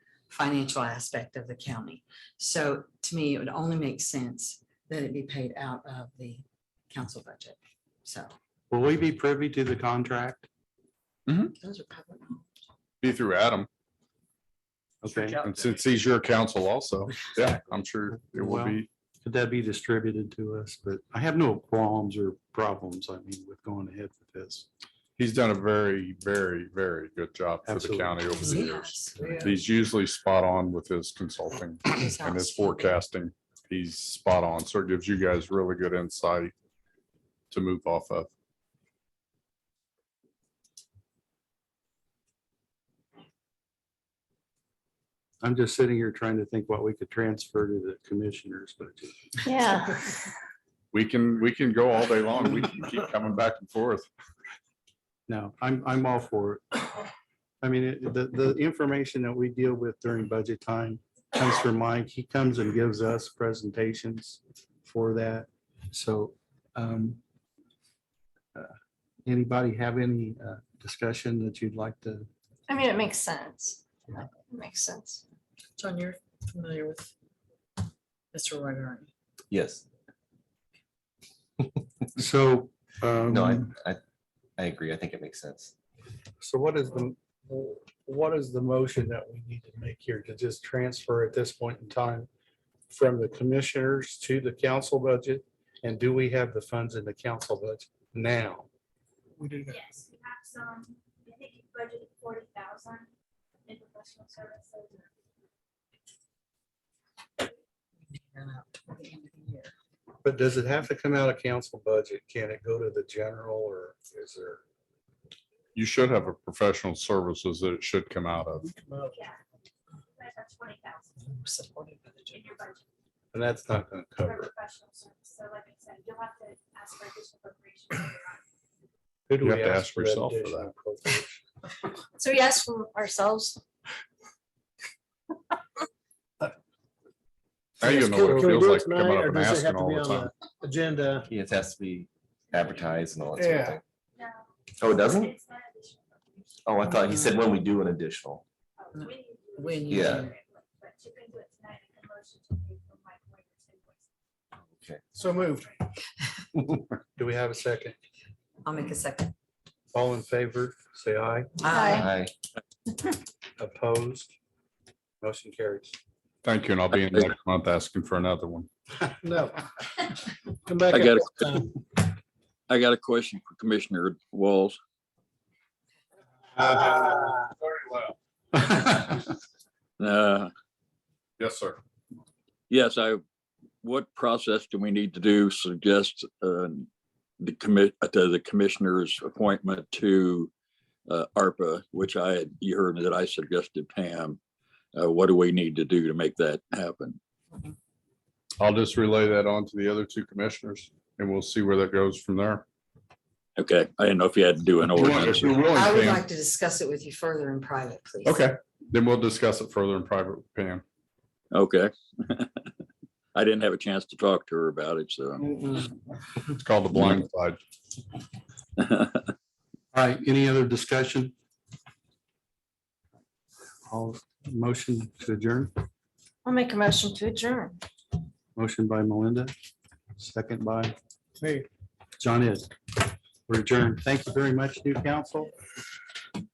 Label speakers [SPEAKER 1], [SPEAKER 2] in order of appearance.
[SPEAKER 1] financial aspect of the county. So to me, it would only make sense that it be paid out of the council budget. So
[SPEAKER 2] Will we be privy to the contract?
[SPEAKER 1] those are public.
[SPEAKER 3] Be through Adam,
[SPEAKER 2] Okay,
[SPEAKER 3] and since he's your counsel also, yeah, I'm sure it will
[SPEAKER 2] Well-
[SPEAKER 3] be.
[SPEAKER 2] could that be distributed to us? But I have no qualms or problems, I mean, with going ahead with this.
[SPEAKER 3] He's done a very, very, very good job for the
[SPEAKER 2] Absolutely.
[SPEAKER 3] county over the years.
[SPEAKER 1] Yes.
[SPEAKER 3] He's usually spot on with his consulting
[SPEAKER 1] He's
[SPEAKER 3] and his
[SPEAKER 1] outstanding.
[SPEAKER 3] forecasting. He's spot on, so it gives you guys really good insight to move off of.
[SPEAKER 2] I'm just sitting here trying to think what we could transfer to the commissioners, but
[SPEAKER 4] Yeah.
[SPEAKER 3] We can, we can go all day long. We can keep coming back and forth.
[SPEAKER 2] no, I'm, I'm all for it. I mean, it- the, the information that we deal with during budget time comes from Mike. He comes and gives us presentations for that. So um, uh, anybody have any uh, discussion that you'd like to?
[SPEAKER 4] I mean, it makes sense. It Makes sense.
[SPEAKER 1] John, you're familiar with Mr. Roy.
[SPEAKER 5] Yes,
[SPEAKER 2] So.
[SPEAKER 5] no, I,
[SPEAKER 2] um,
[SPEAKER 5] I, I agree. I think it makes sense.
[SPEAKER 2] So what is the, what is the motion that we need to make here to just transfer at this point in time from the commissioners to the council budget? And do we have the funds in the council budget now?
[SPEAKER 6] Yes, we have some, I think you budgeted forty thousand in professional services.
[SPEAKER 2] But does it have to come out of council budget? Can it go to the general or is there?
[SPEAKER 3] You should have a professional services that it should come out of.
[SPEAKER 5] Oh.
[SPEAKER 6] Yeah. You guys have twenty thousand in your budget
[SPEAKER 2] And that's not going to
[SPEAKER 6] for
[SPEAKER 2] cover it.
[SPEAKER 6] professional service, so like I said, you'll have to ask for additional appropriation.
[SPEAKER 2] Who do
[SPEAKER 3] You
[SPEAKER 2] we
[SPEAKER 3] have to ask
[SPEAKER 2] that
[SPEAKER 3] yourself for
[SPEAKER 2] additional
[SPEAKER 3] that.
[SPEAKER 2] appropriation?
[SPEAKER 4] So we asked from ourselves.
[SPEAKER 3] Now you know what it feels like to come out of an asking all the time.
[SPEAKER 7] Agenda.
[SPEAKER 5] It has to be advertised and all that sort of
[SPEAKER 7] Yeah.
[SPEAKER 5] thing.
[SPEAKER 6] No.
[SPEAKER 5] Oh, it doesn't?
[SPEAKER 6] It's not additional appropriation.
[SPEAKER 5] Oh, I thought he said when we do an additional.
[SPEAKER 6] Oh, When you. do it.
[SPEAKER 1] When you
[SPEAKER 5] Yeah.
[SPEAKER 1] do
[SPEAKER 6] But you can do it tonight, and the motion to pay for Mike Wager's invoice.
[SPEAKER 7] So moved.
[SPEAKER 2] Do we have a second?
[SPEAKER 1] I'll make a second. Uh,
[SPEAKER 2] All in favor, say aye.
[SPEAKER 1] Aye.
[SPEAKER 5] I,
[SPEAKER 2] Opposed? Motion carries.
[SPEAKER 3] Thank you, and I'll be in next month asking for another one.
[SPEAKER 7] No. Come back.
[SPEAKER 8] I
[SPEAKER 7] up
[SPEAKER 8] got it.
[SPEAKER 7] next time.
[SPEAKER 8] I got a question for Commissioner Walls. Uh,
[SPEAKER 3] Yes, sir.
[SPEAKER 8] yes, I, what process do we need to do suggest uh, the commit, uh, the the commissioner's appointment to uh, ARPA, which I, had you heard that I suggested Pam. Uh, What do we need to do to make that happen?
[SPEAKER 3] I'll just relay that on to the other two commissioners and we'll see where that goes from there.
[SPEAKER 8] Okay, I didn't know if you had to do an
[SPEAKER 3] If you want-
[SPEAKER 8] ordinance.
[SPEAKER 3] if you're willing,
[SPEAKER 1] I would
[SPEAKER 3] Pam.
[SPEAKER 1] like to discuss it with you further in private, please.
[SPEAKER 3] Okay, then we'll discuss it further in private, with Pam.
[SPEAKER 8] Okay. I didn't have a chance to talk to her about it, so.
[SPEAKER 1] Mm-mm.
[SPEAKER 3] It's called the blind side.
[SPEAKER 2] All right, any other discussion? All motion to adjourn,
[SPEAKER 4] I'll make a motion to adjourn.
[SPEAKER 2] motion by Melinda, second by
[SPEAKER 7] Me.
[SPEAKER 2] John is. We're adjourned. Thank you very much, new council.